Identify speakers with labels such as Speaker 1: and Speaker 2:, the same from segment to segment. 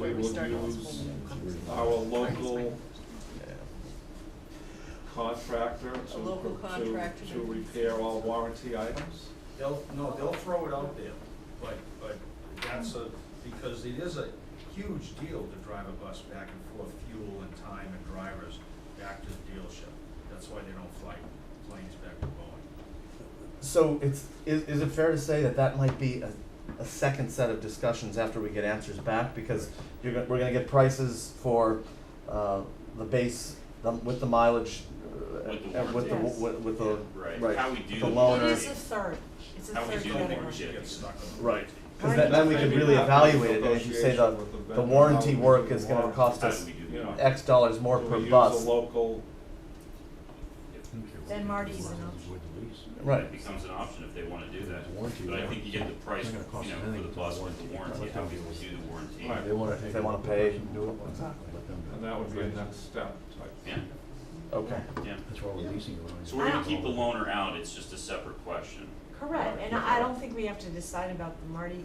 Speaker 1: we
Speaker 2: would
Speaker 1: started this whole
Speaker 2: use
Speaker 1: thing.
Speaker 2: our local contractor to,
Speaker 1: A local contractor.
Speaker 2: to, to repair all warranty items.
Speaker 3: They'll, no, they'll throw it out there, but, but that's a, because it is a huge deal to drive a bus back and forth, fuel and time and drivers back to the dealership. That's why they don't fly planes back to Boeing.
Speaker 4: So it's, is, is it fair to say that that might be a, a second set of discussions after we get answers back? Because you're gonna, we're gonna get prices for, uh, the base, the, with the mileage, uh,
Speaker 5: With the
Speaker 4: and with the,
Speaker 1: warranty.
Speaker 4: with, with the,
Speaker 5: Right.
Speaker 4: right,
Speaker 5: How we do
Speaker 4: the
Speaker 5: the
Speaker 4: loaner.
Speaker 1: It is a third, it's a
Speaker 5: How we
Speaker 1: third
Speaker 5: do the
Speaker 3: I think we
Speaker 1: category.
Speaker 5: warranty.
Speaker 3: should get stuck on.
Speaker 4: Right,
Speaker 1: Right.
Speaker 4: cause then, then we could really evaluate it, and if you say the,
Speaker 2: Negotiation with the
Speaker 4: the
Speaker 2: vendor,
Speaker 4: warranty
Speaker 2: how we
Speaker 4: work
Speaker 2: do
Speaker 4: is
Speaker 2: the
Speaker 4: gonna
Speaker 2: warranty.
Speaker 4: cost
Speaker 5: How do
Speaker 4: us
Speaker 5: we do
Speaker 2: You know.
Speaker 5: that?
Speaker 4: X dollars more
Speaker 2: Do
Speaker 4: per
Speaker 2: we use
Speaker 4: bus.
Speaker 2: a local,
Speaker 1: Then Marty's an option.
Speaker 4: Right,
Speaker 5: It becomes an option if they wanna do that,
Speaker 6: Warranty,
Speaker 5: but I
Speaker 6: yeah.
Speaker 5: think you get the price,
Speaker 6: It's
Speaker 5: you
Speaker 6: not gonna cost
Speaker 5: know,
Speaker 6: them
Speaker 5: for the
Speaker 6: anything,
Speaker 5: bus
Speaker 6: it's
Speaker 5: with the
Speaker 6: warranty.
Speaker 5: warranty, how we would do the warranty.
Speaker 2: Right.
Speaker 6: They wanna take.
Speaker 4: If they
Speaker 6: it
Speaker 4: wanna
Speaker 6: up,
Speaker 4: pay.
Speaker 6: let them do it,
Speaker 4: Exactly.
Speaker 6: let them do it.
Speaker 2: and that would be a next step type.
Speaker 5: Yeah,
Speaker 4: okay.
Speaker 5: yeah.
Speaker 6: That's why we're leasing it.
Speaker 5: So we're gonna keep the loaner out, it's just a separate question.
Speaker 1: Correct, and I I don't think we have to decide about the Marty,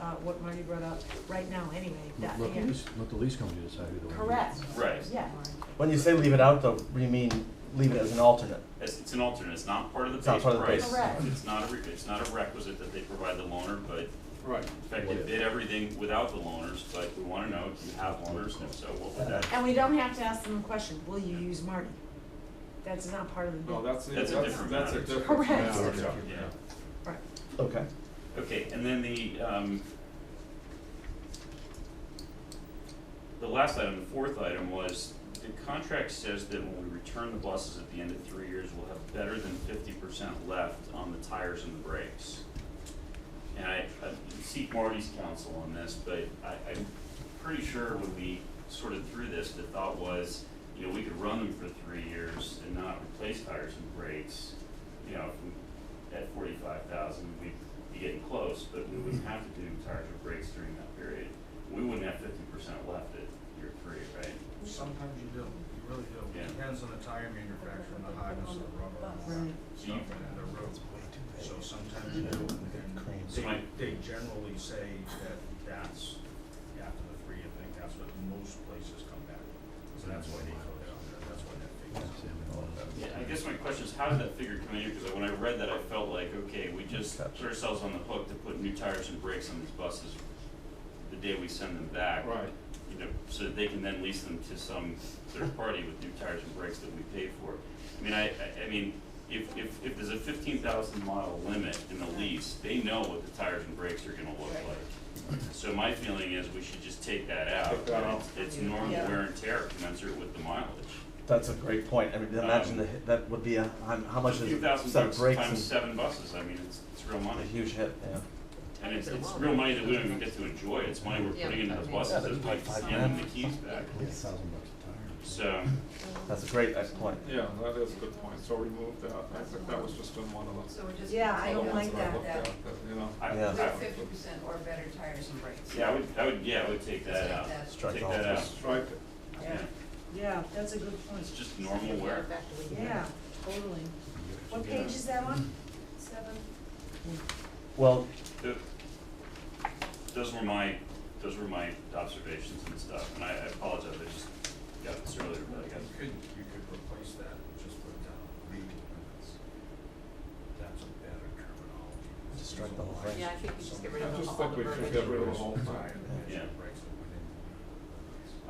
Speaker 1: uh, what Marty brought up right now anyway, that,
Speaker 6: Let let the
Speaker 1: yeah.
Speaker 6: lease, let the lease company decide who the one.
Speaker 1: correct.
Speaker 5: Right.
Speaker 1: Yeah,
Speaker 4: When you say leave it out though, you mean leave it as an alternate?
Speaker 5: It's, it's an alternate, it's not part of the
Speaker 4: It's not
Speaker 5: base
Speaker 4: part of the
Speaker 5: price,
Speaker 1: base. Correct.
Speaker 5: it's not a, re- it's not a requisite that they provide the loaner, but
Speaker 2: Right.
Speaker 5: in fact, they did everything without the loaners, but we wanna know, do you have loaners, and if so, what would that?
Speaker 1: and we don't have to ask them a question, will you use Marty? That's not part of the bid.
Speaker 2: No, that's, that's,
Speaker 5: That's a different
Speaker 2: that's a
Speaker 5: matter.
Speaker 2: different.
Speaker 1: Correct.
Speaker 2: matter, yeah.
Speaker 3: Yeah.
Speaker 5: Yeah.
Speaker 1: Right.
Speaker 4: Okay.
Speaker 5: Okay, and then the, um, the last item, the fourth item was, the contract says that when we return the buses at the end of three years, we'll have better than fifty percent left on the tires and the brakes. And I, I seek Marty's counsel on this, but I, I'm pretty sure when we sorted through this, the thought was, you know, we could run them for three years and not replace tires and brakes. You know, if we- at forty-five thousand, we'd be getting close, but we wouldn't have to do tires or brakes during that period. We wouldn't have fifty percent left at year three, right?
Speaker 3: Sometimes you do, you really do.
Speaker 5: Yeah.
Speaker 3: Depends on the tire manufacturer and the hardness of the rubber
Speaker 1: Right.
Speaker 3: and stuff and the road. So sometimes you do, and
Speaker 5: So my-
Speaker 3: they, they generally say that that's, after the three-year thing, that's what most places come back with. So that's why they throw that out there, that's why that thing is.
Speaker 6: Oh,
Speaker 5: Yeah, I guess my question is, how did that figure come in here? Because when I read that, I felt like, okay, we just put
Speaker 4: Gotcha.
Speaker 5: ourselves on the hook to put new tires and brakes on these buses the day we send them back.
Speaker 2: Right,
Speaker 5: You know, so that they can then lease them to some third party with new tires and brakes that we pay for. I mean, I, I, I mean, if, if, if there's a fifteen thousand mile limit in the lease, they know what the tires and brakes are gonna look
Speaker 1: Right.
Speaker 5: like. So my feeling is we should just take that out.
Speaker 2: Take that
Speaker 5: and
Speaker 2: out.
Speaker 5: It's, it's normal
Speaker 1: Yeah.
Speaker 5: wear and tear commensurate with the mileage.
Speaker 4: That's a great point. I mean, imagine the, hit- that would be a, how- how much is
Speaker 5: Fifteen
Speaker 4: a
Speaker 5: thousand
Speaker 4: set of brakes
Speaker 5: times
Speaker 4: and
Speaker 5: seven buses, I mean, it's, it's real
Speaker 4: a
Speaker 5: money.
Speaker 4: huge hit, yeah.
Speaker 5: And it's, it's real money that we don't even get to enjoy, it's money we're
Speaker 7: Yeah,
Speaker 5: putting into those
Speaker 7: but-
Speaker 5: buses,
Speaker 4: Yeah,
Speaker 5: it's like
Speaker 4: but-
Speaker 5: handing the keys back.
Speaker 6: Yeah, a thousand bucks a tire.
Speaker 5: So,
Speaker 4: That's a great, excellent point.
Speaker 2: yeah, that is a good point, so remove that, I think that was just in one of the.
Speaker 7: So we're just.
Speaker 1: Yeah, I don't
Speaker 2: ones
Speaker 1: like
Speaker 2: that I
Speaker 1: that,
Speaker 2: looked
Speaker 7: that-
Speaker 2: at, you know.
Speaker 5: I,
Speaker 4: Yeah.
Speaker 7: With
Speaker 5: I,
Speaker 7: fifty percent or better tires and brakes.
Speaker 5: yeah, I would, I would, yeah, I would take that uh, out,
Speaker 7: That's-
Speaker 4: Strike
Speaker 5: take
Speaker 4: all
Speaker 5: that out,
Speaker 4: this.
Speaker 2: Strike it.
Speaker 5: yeah,
Speaker 1: Yeah, that's a good point.
Speaker 5: it's just normal wear.
Speaker 1: Yeah, totally. What page is that on? Seven?
Speaker 4: Well,
Speaker 5: Th- Those were my, those were my observations and stuff, and I, I apologize, I just got this earlier, but I got
Speaker 3: You could, you could replace that, and just put down reading minutes. That's a better terminology.
Speaker 4: Just strike the whole thing.
Speaker 7: Yeah, I think we just get rid
Speaker 2: I
Speaker 7: of
Speaker 2: just
Speaker 7: all
Speaker 2: think
Speaker 7: the
Speaker 2: we should
Speaker 7: verbiage.
Speaker 2: get rid of the whole thing.
Speaker 5: Yeah.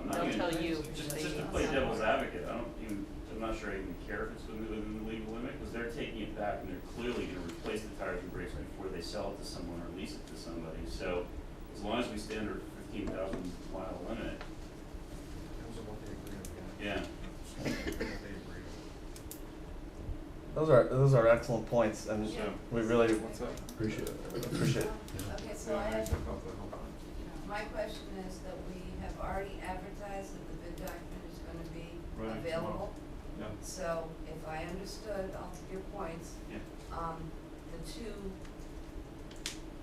Speaker 5: I'm not
Speaker 7: They'll
Speaker 5: even-
Speaker 7: tell you
Speaker 5: Just,
Speaker 7: if they
Speaker 5: just to
Speaker 7: need
Speaker 5: play
Speaker 7: some.
Speaker 5: devil's advocate, I don't even, I'm not sure I even care if it's within, within the legal limit, because they're taking it back and they're clearly gonna replace the tires and brakes before they sell it to someone or lease it to somebody, so as long as we stand under fifteen thousand mile limit, yeah.
Speaker 4: those are, those are excellent points and
Speaker 5: Yeah.
Speaker 4: we really
Speaker 2: What's that?
Speaker 6: Appreciate it.
Speaker 4: appreciate it.
Speaker 7: Okay, so
Speaker 2: Yeah,
Speaker 7: I
Speaker 2: I
Speaker 7: have,
Speaker 2: think of the whole thing.
Speaker 7: my question is that we have already advertised that the bid document is gonna be
Speaker 2: Right,
Speaker 7: available.
Speaker 2: Yeah,
Speaker 7: So if I understood all of your points,
Speaker 5: Yeah.
Speaker 7: um, the two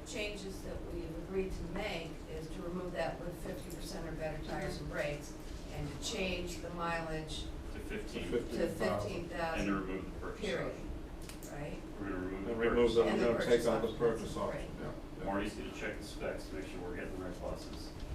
Speaker 7: changes that we've agreed to make is to remove that with fifty percent or better tires and brakes and to change the mileage
Speaker 5: to
Speaker 2: to
Speaker 5: fifteen,
Speaker 7: to
Speaker 2: fifteen thousand.
Speaker 5: and
Speaker 7: fifteen
Speaker 5: to
Speaker 7: thousand,
Speaker 5: remove the purchase option.
Speaker 7: period, right?
Speaker 5: We're gonna remove the
Speaker 2: And remove the,
Speaker 5: purchase.
Speaker 7: And
Speaker 2: you
Speaker 7: the
Speaker 2: know, take
Speaker 7: purchase
Speaker 2: out the
Speaker 7: option.
Speaker 2: purchase
Speaker 7: Right.
Speaker 2: option, yeah. yeah.
Speaker 5: Marty's gonna check the specs, to make sure we're getting the right buses.